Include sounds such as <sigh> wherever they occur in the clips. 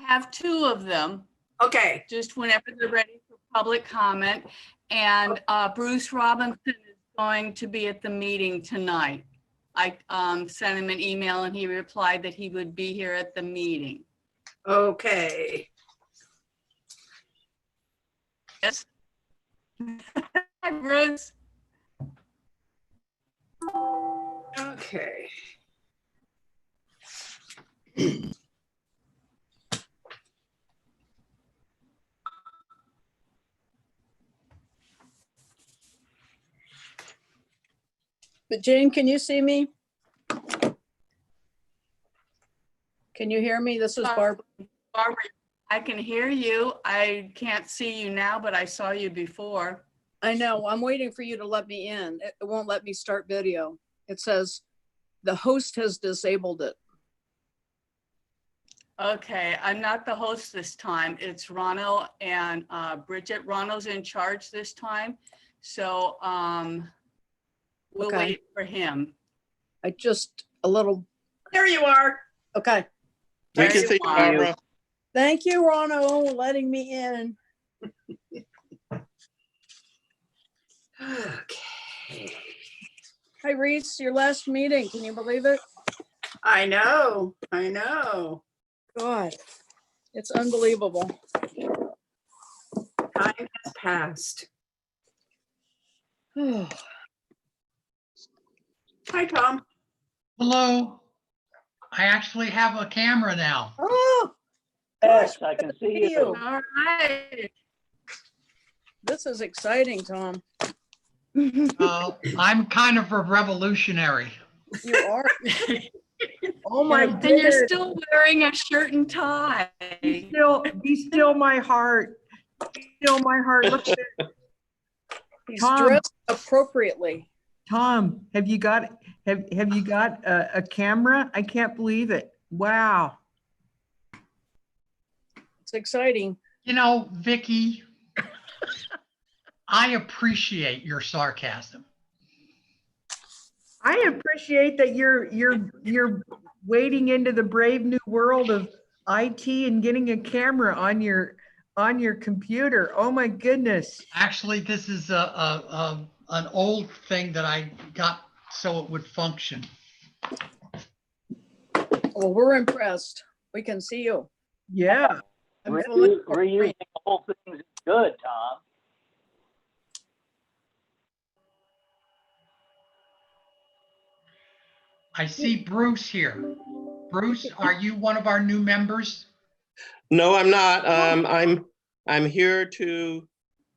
have two of them, Okay, just whenever they're ready for public comment. And uh, Bruce Robinson is going to be at the meeting tonight. I um, sent him an email and he replied that he would be here at the meeting. okay. Yes. Hi, Bruce. Okay. But Jean, can you see me? Can you hear me? This is Uh, Barbara. Barbara, I can hear you. I can't see you now, but I saw you before. I know, I'm waiting for you to let me in. It it won't let me start video. It says the host has disabled it. Okay, I'm not the host this time. It's Ronald and uh, Bridget. Ronald's in charge this time. So um, we'll Okay. wait for him. I just, a little, There you are. okay. We Very can see you, wise. Barbara. Thank you, Rono, letting me in. Okay. Hi, Reese, your last meeting, can you believe it? I know, I know. God, it's unbelievable. Time has passed. <sighs> Hi, Hi, Tom. Hello. I actually have a camera now. Oh, Yes, I can see you. you. All right. this is exciting, Tom. Uh, I'm kind of a revolutionary. You are. Oh, my And you're goodness. still wearing a shirt and tie. Be still, be still my heart. Be Still my heart. Look at He's Tom. dressed appropriately. Tom, have you got, have, have you got a, a camera? I can't believe it. Wow. It's exciting. You know, Vicky, I appreciate your sarcasm. I appreciate that you're, you're, you're wading into the brave new world of IT and getting a camera on your, on your computer. Oh my goodness. Actually, this is a, a, a an old thing that I got so it would function. Well, we're impressed. We can see you. Yeah. I'm Re- fully- Reusing old things is good, Tom. I see Bruce here. Bruce, are you one of our new members? No, I'm not. Um, I'm, I'm here to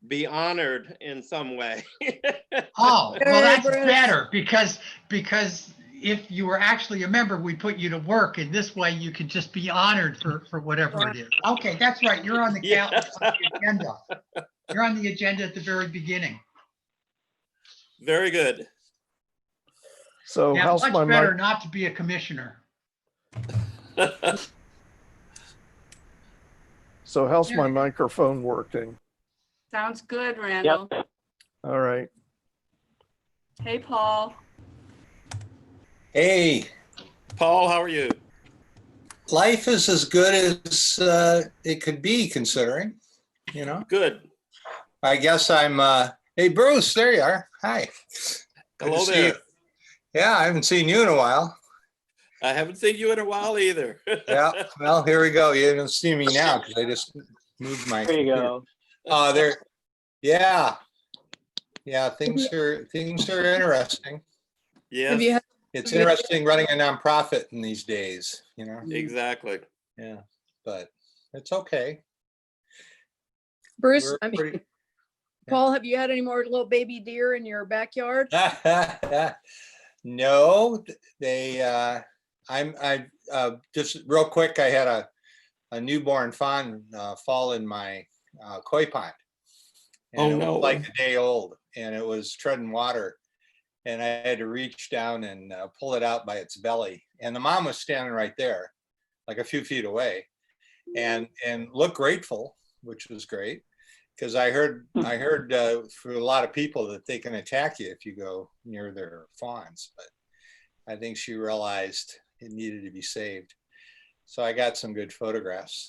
be honored in some way. <laughs> Oh, well, that's Hey, Bruce. better because, because if you were actually a member, we put you to work and this way you could just be honored for, for whatever it is. Okay, that's right. You're on the count, Yeah. on the agenda. You're on the agenda at the very beginning. Very good. <laughs> So Yeah, Oh, how's my much mic? better not to be a commissioner. So how's my microphone working? Sounds good, Randall. All right. Hey, Paul. Hey, Paul, how are you? life is as good as uh, it could be considering, you know. Good. I guess I'm, uh, hey, Bruce, there you are. Hi. Good to Hello see there. you. Yeah, I haven't seen you in a while. I haven't seen you in a while either. <laughs> Yeah, well, here we go. You don't see me now because I just moved my. There you go. Uh, there, yeah. Yeah, things are, things are interesting. Have Yes, you had It's interesting running a nonprofit in these days, you know, exactly. yeah, but it's okay. Bruce, We're I mean, pretty- Paul, have you had any more little baby deer in your backyard? <laughs> No, th- they, uh, I'm, I, uh, just real quick, I had a, a newborn fawn, uh, fall in my, uh, koi pond. Oh, And it no. was like a day old and it was treading water. And I had to reach down and uh, pull it out by its belly. And the mom was standing right there, like a few feet away. And, and looked grateful, which was great. Because I heard, Hmm. I heard uh, for a lot of people that they can attack you if you go near their fawns, but I think she realized it needed to be saved. So I got some good photographs.